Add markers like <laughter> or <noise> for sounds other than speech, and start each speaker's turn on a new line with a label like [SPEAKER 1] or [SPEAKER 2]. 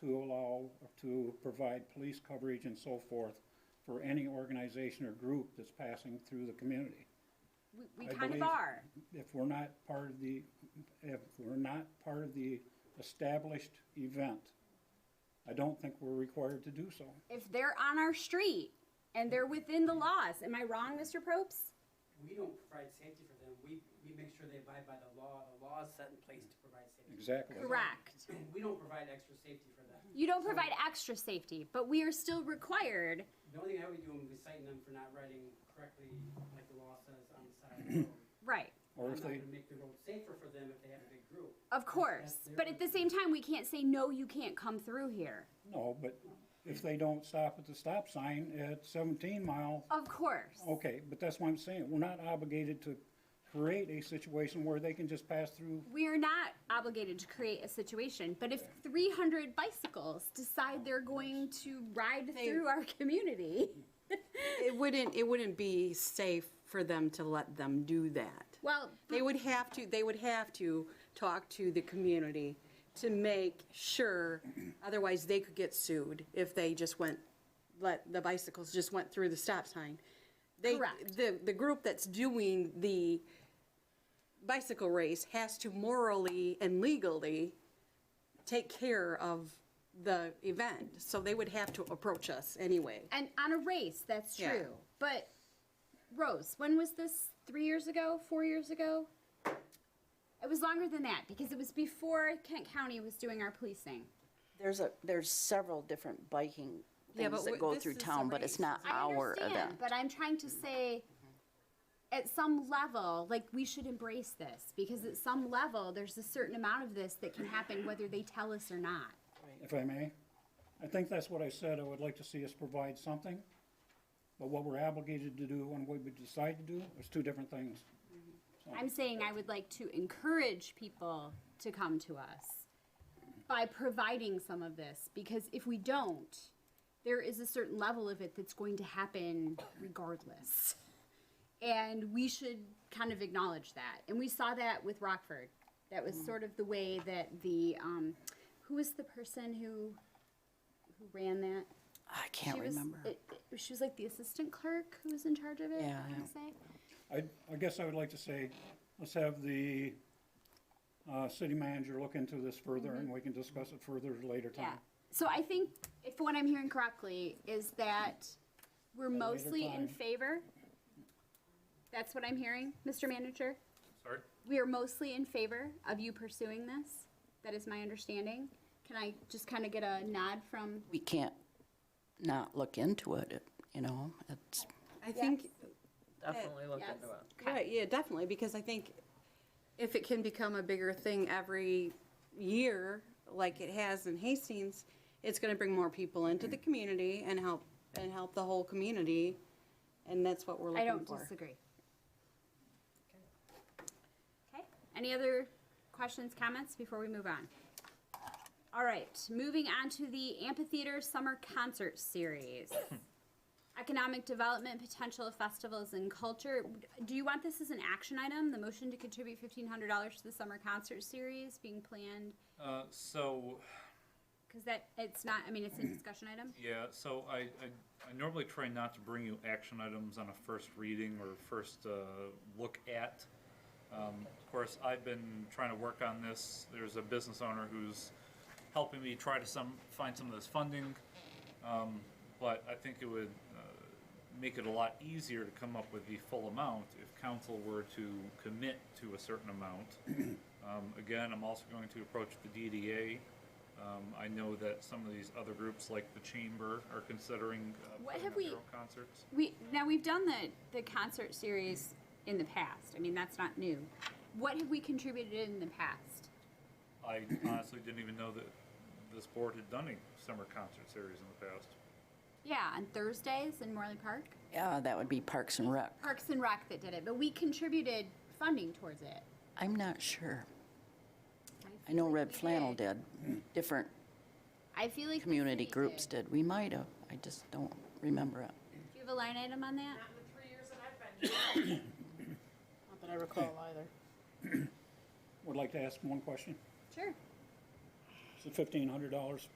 [SPEAKER 1] to allow, to provide police coverage and so forth for any organization or group that's passing through the community.
[SPEAKER 2] We, we
[SPEAKER 1] I
[SPEAKER 2] kind of
[SPEAKER 1] believe-
[SPEAKER 2] are.
[SPEAKER 1] If we're not part of the, if we're not part of the established event, I don't think we're required to do so.
[SPEAKER 2] If they're on our street and they're within the laws, am I wrong, Mr. Probst?
[SPEAKER 3] We don't provide safety for them. We, we make sure they abide by the law. The law is set in place to provide safety. <clears throat>
[SPEAKER 1] Exactly.
[SPEAKER 2] Correct.
[SPEAKER 3] We don't provide extra safety for them.
[SPEAKER 2] You don't provide extra safety, but we are still required.
[SPEAKER 3] The only thing I would do is citing them for not riding correctly, like the law says, on the side of the road.
[SPEAKER 2] Right.
[SPEAKER 1] Or if
[SPEAKER 3] I'm
[SPEAKER 1] they,
[SPEAKER 3] not gonna make the road safer for them if they have a big group.
[SPEAKER 2] Of course. But at the same time, we can't say, no, you can't come through here.
[SPEAKER 1] no, but if they don't stop at the stop sign at seventeen mile,
[SPEAKER 2] Of course.
[SPEAKER 1] okay, but that's what I'm saying. We're not obligated to create a situation where they can just pass through.
[SPEAKER 2] We're not obligated to create a situation, but if 300 bicycles
[SPEAKER 1] Oh,
[SPEAKER 2] decide they're going to ride
[SPEAKER 4] They-
[SPEAKER 2] through our community,
[SPEAKER 4] It wouldn't, it wouldn't be safe for them to let them do that.
[SPEAKER 2] well,
[SPEAKER 4] They would have to, they would have to talk to the community to make sure, otherwise they could get sued if they just went, let, the bicycles just went through the stop sign. They,
[SPEAKER 2] Correct.
[SPEAKER 4] the, the group that's doing the bicycle race has to morally and legally take care of the event. So they would have to approach us anyway.
[SPEAKER 2] and on a race, that's true.
[SPEAKER 4] Yeah.
[SPEAKER 2] But Rose, when was this? Three years ago? Four years ago? It was longer than that because it was before Kent County was doing our policing.
[SPEAKER 5] There's a, there's several different biking
[SPEAKER 4] Yeah, but
[SPEAKER 5] things that
[SPEAKER 4] w-
[SPEAKER 5] go
[SPEAKER 4] this
[SPEAKER 5] through
[SPEAKER 4] is a
[SPEAKER 5] town, but it's
[SPEAKER 4] race.
[SPEAKER 5] not
[SPEAKER 2] I
[SPEAKER 5] our
[SPEAKER 2] understand,
[SPEAKER 5] event.
[SPEAKER 2] but I'm trying to say, at some level, like we should embrace this because at some level, there's a certain amount of this that can happen whether they tell us or not.
[SPEAKER 1] if I may. I think that's what I said, I would like to see us provide something, but what we're obligated to do and what we decide to do is two different things.
[SPEAKER 2] I'm saying I would like to encourage people to come to us by providing some of this because if we don't, there is a certain level of it that's going to happen regardless. And we should kind of acknowledge that. And we saw that with Rockford. That
[SPEAKER 5] Mm.
[SPEAKER 2] was sort of the way that the um, who was the person who who ran that?
[SPEAKER 5] I can't
[SPEAKER 2] she was
[SPEAKER 5] remember.
[SPEAKER 2] It, it- she was like the assistant clerk who was in charge of it.
[SPEAKER 5] Yeah,
[SPEAKER 2] I
[SPEAKER 5] yeah.
[SPEAKER 2] want to say.
[SPEAKER 1] I, I guess I would like to say, let's have the, uh, city manager look into this further and we can discuss it further at a later
[SPEAKER 2] Yeah.
[SPEAKER 1] time.
[SPEAKER 2] So I think if what I'm hearing correctly is that we're mostly in
[SPEAKER 1] time.
[SPEAKER 2] favor. That's what I'm hearing, Mr. Manager.
[SPEAKER 6] Sorry?
[SPEAKER 2] We are mostly in favor of you pursuing this. That is my understanding. Can I just kind of get a nod from?
[SPEAKER 5] We can't not look into it, it- you know, it's,
[SPEAKER 4] I think,
[SPEAKER 7] Definitely look
[SPEAKER 2] Yes.
[SPEAKER 7] into it.
[SPEAKER 4] Right, yeah, definitely, because I think if it can become a bigger thing every year, like it has in Hastings, it's gonna bring more people into the community and help, and help the whole community, and that's what we're
[SPEAKER 2] I
[SPEAKER 4] looking
[SPEAKER 2] don't
[SPEAKER 4] for.
[SPEAKER 2] disagree. Okay, any other questions, comments before we move on? All right, moving on to the amphitheater summer concert
[SPEAKER 4] <coughs>
[SPEAKER 2] series. Economic development potential of festivals and culture. Do you want this as an action item? The motion to contribute fifteen hundred dollars to the summer concert series being planned?
[SPEAKER 6] Uh, so,
[SPEAKER 2] Cause that, it's not, I mean, it's a discussion item.
[SPEAKER 6] yeah, so I, I, I normally try not to bring you action items on a first reading or first, uh, look at. Um, of course, I've been trying to work on this. There's a business owner who's helping me try to some, find some of this funding. Um, but I think it would, uh, make it a lot easier to come up with the full amount if council were to commit to a certain amount. Um, again, I'm also going to approach the DDA. Um, I know that some of these other groups, like the Chamber, are considering uh,
[SPEAKER 2] What
[SPEAKER 6] putting
[SPEAKER 2] have
[SPEAKER 6] up their
[SPEAKER 2] we-
[SPEAKER 6] own concerts.
[SPEAKER 2] We, now, we've done the, the concert series in the past. I mean, that's not new. What have we contributed in the past?
[SPEAKER 6] I honestly didn't even know that this board had done a summer concert series in the past.
[SPEAKER 2] Yeah, on Thursdays in Morley Park?
[SPEAKER 5] yeah, that would be Parks and Rec.
[SPEAKER 2] Parks and Rec that did it, but we contributed funding towards it.
[SPEAKER 5] I'm not sure. I
[SPEAKER 2] feel
[SPEAKER 5] know
[SPEAKER 2] like
[SPEAKER 5] Red
[SPEAKER 2] we
[SPEAKER 5] Flannel did, different
[SPEAKER 2] I feel like the
[SPEAKER 5] community
[SPEAKER 2] city
[SPEAKER 5] groups did. We might have, I just don't remember it.
[SPEAKER 2] Do you have a line item on that?
[SPEAKER 8] Not in the three years that I've been here. Not that I recall either.
[SPEAKER 1] Would like to ask one question.
[SPEAKER 2] Sure.
[SPEAKER 1] Is it fifteen hundred dollars